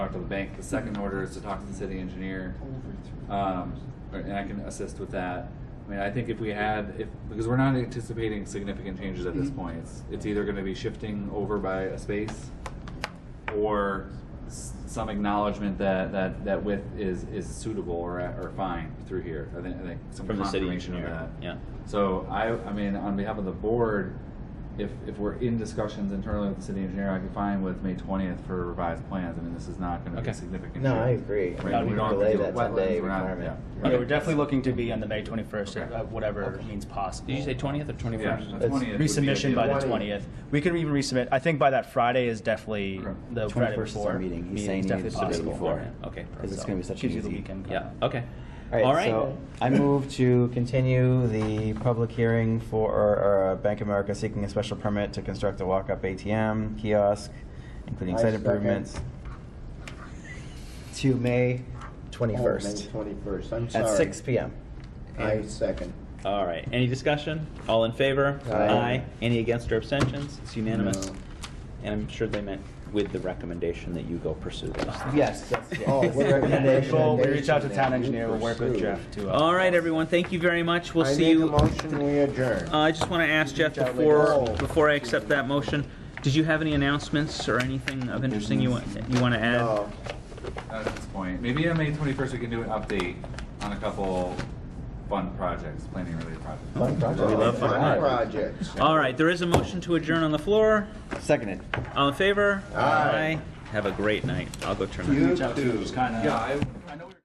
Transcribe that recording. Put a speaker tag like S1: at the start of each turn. S1: talk to the bank. The second order is to talk to the city engineer, um, or- and I can assist with that. I mean, I think if we had, if because we're not anticipating significant changes at this
S2: Mm-hmm.
S1: point, it's, it's either going to be shifting over by a space, or s- some acknowledgement that that that width is is suitable or or fine through here. I think I think some
S2: From the city
S1: confirmation of
S2: engineer,
S1: that.
S2: yeah.
S1: So I, I mean, on behalf of the board, if, if we're in discussions internally with the city engineer, I can find with May twentieth for revised plans. I mean, this is not gonna be
S2: Okay.
S1: a significant.
S3: No, I
S1: change.
S3: agree. I
S1: Right,
S3: mean,
S1: we
S3: we
S1: don't have to
S3: delay
S1: deal
S3: that
S1: with
S3: 10 day
S1: wetlands, we're not-
S3: requirement.
S1: yeah.
S4: Yeah,
S1: Right.
S4: we're definitely looking to be on the May 21st,
S1: Okay.
S4: uh, whatever
S3: Okay.
S4: means possible.
S2: Did you say twentieth or
S1: Yeah,
S2: twenty-first?
S1: the 20th would be
S4: Resubmission by the
S1: ideal.
S4: 20th. We can even resubmit, I think by that Friday is definitely,
S1: Okay.
S4: the Friday
S3: 21st is our
S4: before.
S3: meeting. He's
S4: meeting
S3: saying
S4: is
S3: he
S4: definitely
S3: needs to do it
S4: possible.
S3: before.
S2: Yeah, Okay.
S3: Because it's
S4: So,
S3: going to be such an
S4: gives you the
S3: easy.
S4: weekend.
S2: Yeah, okay.
S3: All right, so I move to continue the public hearing for or, or, uh, Bank of America seeking a special permit to construct a walk-up ATM kiosk, including
S5: I
S3: site
S5: second.
S3: improvements, to May 21st
S5: Oh, Twenty-first, I'm sorry.
S3: at 6 p.m.
S5: I second.
S2: All right, any discussion? All in favor?
S5: Aye.
S2: Any against or abstentions? It's unanimous.
S5: No.
S2: And I'm sure they meant with the recommendation that you go pursue those.
S3: Yes, yes, yes.
S5: Oh,
S3: yes.
S5: what a recommendation.
S4: We'll we reach out to
S5: Recommendation
S4: town engineer, we'll work with
S5: pursued.
S4: Jeff to. uh,
S2: All right, everyone, thank you very much. We'll
S5: I
S2: see
S5: make a
S2: you. Uh,
S5: motion, we adjourn.
S2: I just want to ask Jeff
S4: out later.
S2: before,
S5: Oh.
S2: before I accept that motion, did you have any announcements or anything of interesting you want, you want to add?
S5: No,
S1: At this point, maybe on May twenty-first, we can do an update on a couple fun projects, planning related projects.
S3: Fun project.
S2: We love fun
S5: my
S2: projects.
S5: projects.
S2: All right, there is a motion to adjourn on the floor.
S3: Seconded.
S2: All in favor?
S5: Aye.
S2: Have a great night. I'll go turn.
S5: You
S2: on.
S4: Reach out to,
S5: too.
S4: just kind of.
S1: Yeah, I,